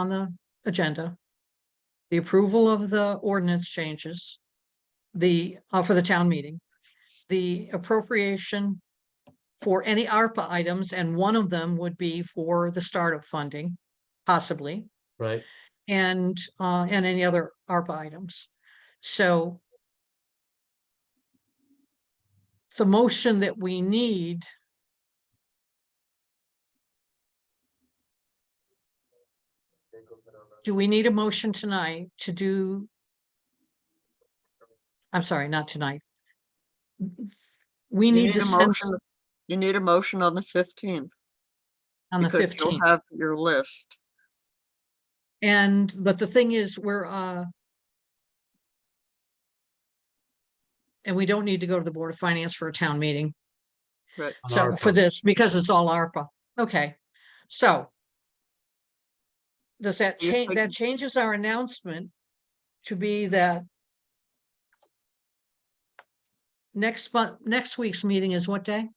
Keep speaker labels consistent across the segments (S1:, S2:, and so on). S1: on the agenda. The approval of the ordinance changes. The, uh, for the town meeting. The appropriation for any ARPA items, and one of them would be for the startup funding, possibly,
S2: right?
S1: and, uh, and any other ARPA items. So the motion that we need do we need a motion tonight to do? I'm sorry, not tonight. We
S3: You
S1: need to
S3: a
S1: send
S3: motion- You need a motion on the fifteenth.
S1: on the
S3: because you'll
S1: fifteenth.
S3: Have your list.
S1: And, but the thing is, we're, uh, and we don't need to go to the Board of Finance for a town meeting.
S3: Right.
S2: on
S1: So
S2: our
S1: for
S2: part.
S1: this, because it's all ARPA. Okay, so. Does that
S3: So you're
S1: change, that
S3: taking-
S1: changes our announcement to be that next month, next week's meeting is what day?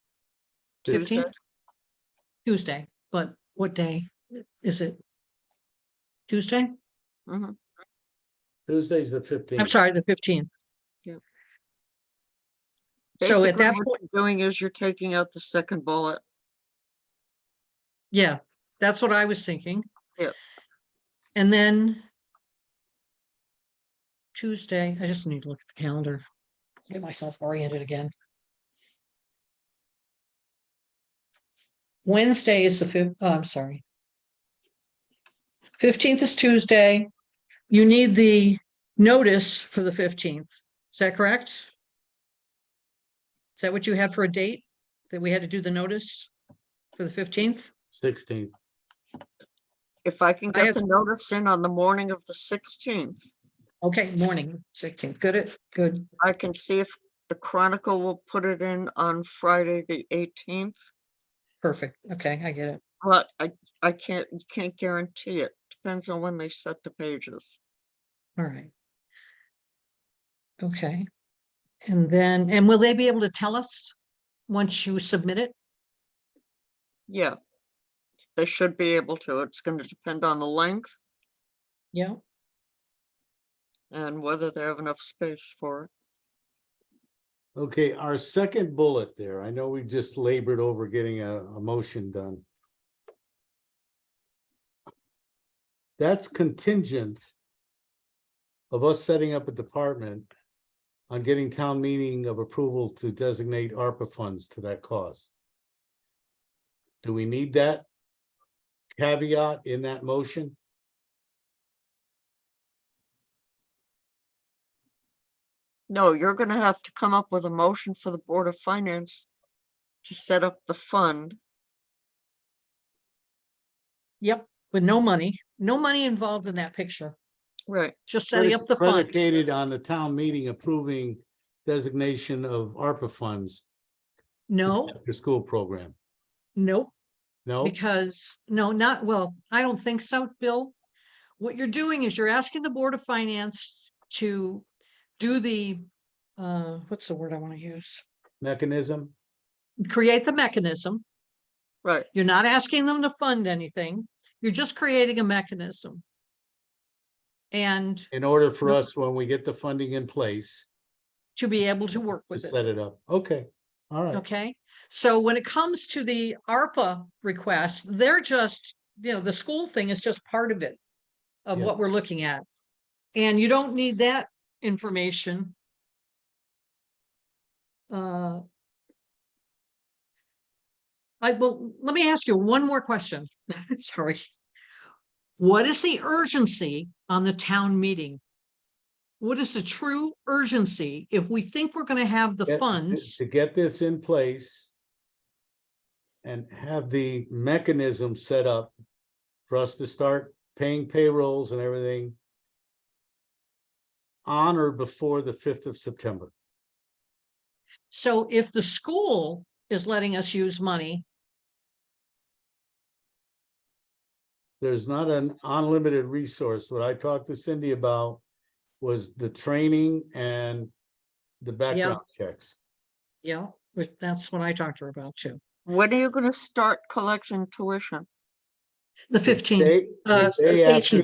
S3: Tuesday.
S1: Fifteenth? Tuesday, but what day is it? Tuesday?
S3: Mhm.
S2: Tuesday's the fifteenth.
S1: I'm sorry, the fifteenth.
S3: Yep.
S1: So at
S3: Basically,
S1: that
S3: what
S1: point,
S3: you're Doing is you're taking out the second bullet.
S1: yeah, that's what I was thinking.
S3: Yep.
S1: And then Tuesday, I just need to look at the calendar, get myself oriented again. Wednesday is the fifth, oh, I'm sorry. Fifteenth is Tuesday. You need the notice for the fifteenth. Is that correct? Is that what you had for a date? That we had to do the notice for the fifteenth?
S2: Sixteenth,
S3: If I can
S1: I have-
S3: get the notice in on the morning of the sixteenth,
S1: Okay, morning, sixteenth. Good, it, good.
S3: I can see if the Chronicle will put it in on Friday, the eighteenth.
S1: Perfect. Okay, I get it.
S3: But I, I can't, can't guarantee it. Depends on when they set the pages.
S1: All right. Okay. And then, and will they be able to tell us once you submit it?
S3: Yeah. They should be able to. It's going to depend on the length
S1: Yeah.
S3: and whether they have enough space for it.
S2: okay, our second bullet there, I know we just labored over getting a, a motion done. That's contingent of us setting up a department on getting town meeting of approval to designate ARPA funds to that cause. Do we need that caveat in that motion?
S3: No, you're gonna have to come up with a motion for the Board of Finance to set up the fund.
S1: Yep, with no money, no money involved in that picture,
S3: Right,
S1: just
S2: But
S1: setting
S2: it's
S1: up the fund.
S2: Predicated on the town meeting approving designation of ARPA funds. to
S1: No,
S2: the After-school program.
S1: nope.
S2: No,
S1: Because, no, not, well, I don't think so, Bill. What you're doing is you're asking the Board of Finance to do the, uh, what's the word I want to use?
S2: mechanism?
S1: Create the mechanism.
S3: right.
S1: You're not asking them to fund anything. You're just creating a mechanism. And
S2: In order for
S1: No.
S2: us, when we get the funding in place,
S1: to be able to work
S2: to
S1: with it,
S2: set it up. Okay, all right.
S1: okay? So when it comes to the ARPA requests, they're just, you know, the school thing is just part of it. Of
S2: Yeah.
S1: what we're looking at. And you don't need that information. Uh. I, well, let me ask you one more question. Sorry. What is the urgency on the town meeting? What is the true urgency if we think we're gonna have
S2: Get-
S1: the funds?
S2: To get this in place and have the mechanism set up for us to start paying payrolls and everything on or before the fifth of September.
S1: So if the school is letting us use money,
S2: there's not an unlimited resource. What I talked to Cindy about was the training and the background checks.
S1: yeah, which that's what I talked to her about too.
S3: When are you gonna start collecting tuition?
S1: the fifteenth.
S2: Day-
S1: uh,
S2: the day after
S1: 18th.